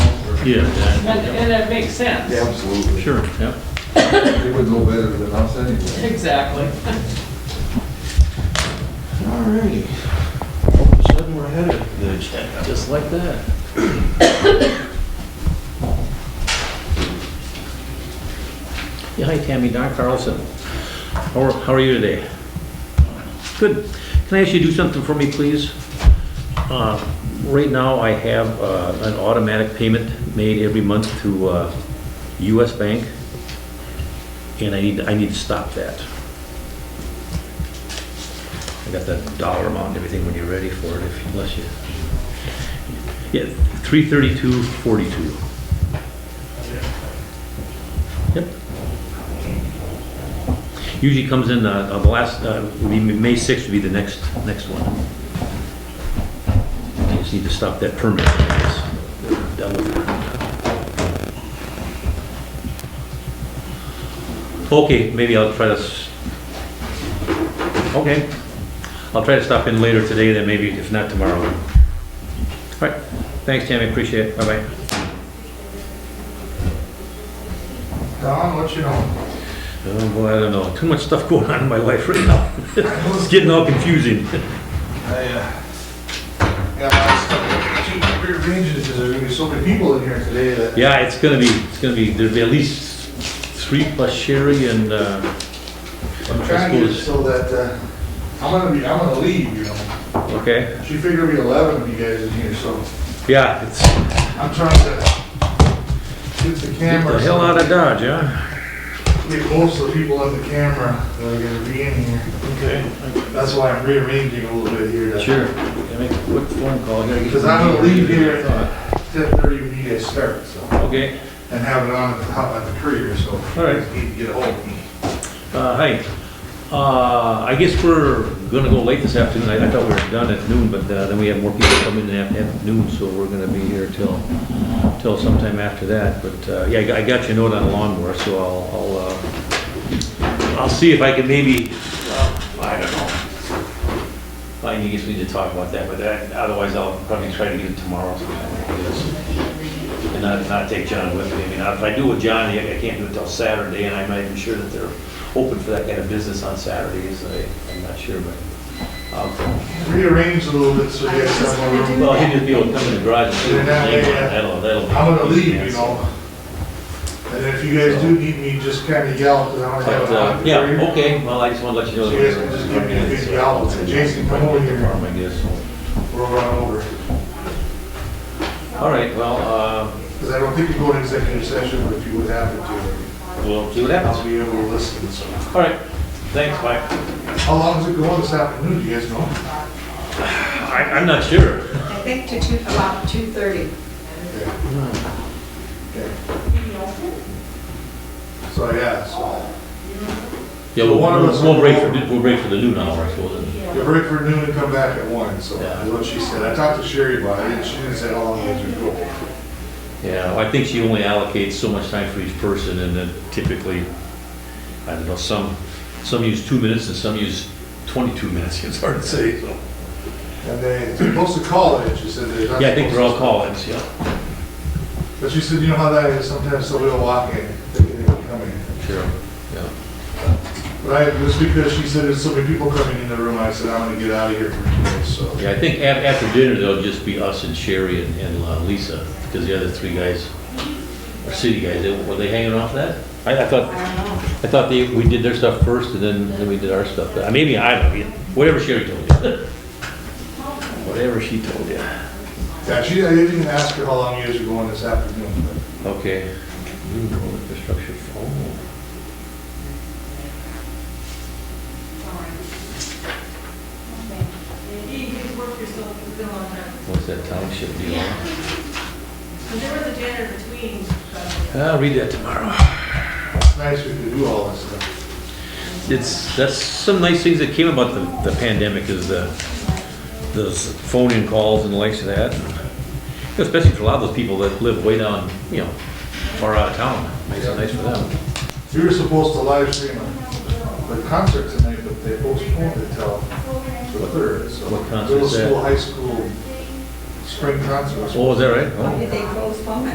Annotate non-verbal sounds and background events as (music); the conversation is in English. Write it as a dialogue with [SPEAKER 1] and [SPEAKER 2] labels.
[SPEAKER 1] Yeah,
[SPEAKER 2] And,
[SPEAKER 1] yeah,
[SPEAKER 2] and it makes sense.
[SPEAKER 1] yeah.
[SPEAKER 3] Absolutely.
[SPEAKER 1] sure, yeah.
[SPEAKER 3] They would know better than us anyway.
[SPEAKER 2] Exactly.
[SPEAKER 4] All righty. All of a sudden, we're ahead of the agenda.
[SPEAKER 1] Just like that. Yeah, hi Tammy, Don Carlson. How are, how are you today? Good. Can I ask you to do something for me, please? Uh, Right now, I have uh, an automatic payment made every month to uh, US Bank, and I need, I need to stop that. I got the dollar amount and everything when you're ready for it, if, unless you... Yeah, three thirty-two forty-two. Yep. Usually comes in, uh, uh, the last, uh, would be May sixth would be the next, next one. I just need to stop that permit. It's done with. Okay, maybe I'll try to, s- okay. I'll try to stop in later today, then maybe if not tomorrow. All right, thanks, Tammy, appreciate it, bye-bye.
[SPEAKER 3] Don, what you know?
[SPEAKER 1] Oh, boy, I don't know, too much stuff going on in my life right now. It's getting all confusing.
[SPEAKER 3] I, uh, got a lot of stuff. Keep rearranging because there's gonna be so many people in here today that.
[SPEAKER 1] Yeah, it's gonna be, it's gonna be, there'll be at least three plus Sherry and, uh,
[SPEAKER 3] I'm trying to get it so that, uh, I'm gonna be, I'm gonna leave, you know?
[SPEAKER 1] okay,
[SPEAKER 3] She figured it'd be eleven of you guys in here, so
[SPEAKER 1] yeah, it's,
[SPEAKER 3] I'm trying to get the
[SPEAKER 1] get
[SPEAKER 3] camera.
[SPEAKER 1] the hell out of Dodge, huh?
[SPEAKER 3] Get most of the people on the camera that are gonna be in here. Okay. That's why I'm rearranging a little bit here. to-
[SPEAKER 1] Sure, can I make a quick phone call here?
[SPEAKER 3] Because I'm gonna leave here at ten thirty when you guys start, so,
[SPEAKER 1] Okay,
[SPEAKER 3] and have it on at the top of the courier, so.
[SPEAKER 1] All right.
[SPEAKER 3] You Need to get a hold of me.
[SPEAKER 1] uh, hi, uh, I guess we're gonna go late this afternoon, I, I thought we were done at noon, but, uh, then we have more people coming in at, at noon, so we're gonna be here till, till sometime after that, but, uh, yeah, I got- I got your note on the lawnmower, so I'll, I'll, uh, I'll see if I can maybe, well, I don't know. I guess we need to talk about that, but that, otherwise I'll probably try to get it tomorrow sometime, I guess. And not, not take John with me, I mean, if I do with John, I I can't do it till Saturday, and I'm not even sure that they're open for that kind of business on Saturdays, I, I'm not sure, but. I'll-
[SPEAKER 3] Rearrange a little bit so you guys have more room.
[SPEAKER 1] Well, he'll just be able to come in the garage and do it,
[SPEAKER 3] Yeah, yeah, yeah.
[SPEAKER 1] that'll, that'll. be-
[SPEAKER 3] I'm gonna leave, you know? And if you guys do need me, just kinda yell, because I don't have
[SPEAKER 1] But,
[SPEAKER 3] a lot
[SPEAKER 1] uh,
[SPEAKER 3] of
[SPEAKER 1] yeah,
[SPEAKER 3] courier.
[SPEAKER 1] okay, well, I just want to let you know. uh,
[SPEAKER 3] So you guys can just give me a big yell, say, "Jason, come over here."
[SPEAKER 1] I guess.
[SPEAKER 3] We'll run over,
[SPEAKER 1] All right, well, uh,
[SPEAKER 3] because I don't think you go to executive session, but if you would happen to,
[SPEAKER 1] we'll see what
[SPEAKER 3] I'll
[SPEAKER 1] happens.
[SPEAKER 3] be able to listen, so.
[SPEAKER 1] All right, thanks, bye.
[SPEAKER 3] How long is it going this afternoon, do you guys know?
[SPEAKER 1] I, I'm not sure.
[SPEAKER 5] I think to two, about two thirty.
[SPEAKER 3] Okay. So, yeah, so.
[SPEAKER 1] Yeah,
[SPEAKER 3] So
[SPEAKER 1] we'll,
[SPEAKER 3] one of us-
[SPEAKER 1] we'll break for, we'll break for the noon hour, I suppose.
[SPEAKER 3] Get ready for noon and come back at one, so
[SPEAKER 1] Yeah.
[SPEAKER 3] that's what she said. I talked to Sherry about it, and she didn't say "Oh, how long it was going
[SPEAKER 1] Yeah, I think she only allocates so much time for each person, and then typically, I don't know, some, some use two minutes and some use 22 minutes, it's hard to say, so.
[SPEAKER 3] And they, supposed to call it, and she said they're not.
[SPEAKER 1] Yeah, I think they're all
[SPEAKER 3] supposed
[SPEAKER 1] call-ins, yeah.
[SPEAKER 3] to. But she said, you know how that is, sometimes somebody will walk in, thinking they were coming.
[SPEAKER 1] Sure, yeah.
[SPEAKER 3] But I, just because she said there's so many people coming in the room, I said, I'm gonna get out of here for two days, so.
[SPEAKER 1] Yeah, I think af- after dinner, there'll just be us and Sherry and- and uh, Lisa, because the other three guys are city guys. They- Were they hanging off that? I I
[SPEAKER 5] I
[SPEAKER 1] thought,
[SPEAKER 5] don't know.
[SPEAKER 1] I thought they, we did their stuff first, and then, then we did our stuff. But Maybe I don't, know. whatever Sherry told you. (laughs) Whatever she told you.
[SPEAKER 3] Yeah, she, I didn't even ask her how long you guys were going this afternoon, but
[SPEAKER 1] Okay. Renewable infrastructure, oh. What's that township deal?
[SPEAKER 6] There was a janitor between, uh, but
[SPEAKER 1] I'll read that tomorrow.
[SPEAKER 3] it's nice we could do all this stuff.
[SPEAKER 1] It's, that's some nice things that came about the, the pandemic is the, those phone-in calls and the likes of that. Especially for a lot of those people that live way down, you know, far out of town. Makes it nice for them.
[SPEAKER 3] We were supposed to live stream the concert tonight, but they postponed it till the third, so.
[SPEAKER 1] What concert
[SPEAKER 3] Middle
[SPEAKER 1] is that?
[SPEAKER 3] school, high school, spring concert.
[SPEAKER 1] Oh, is that right? Oh.
[SPEAKER 5] Why did they postpone it?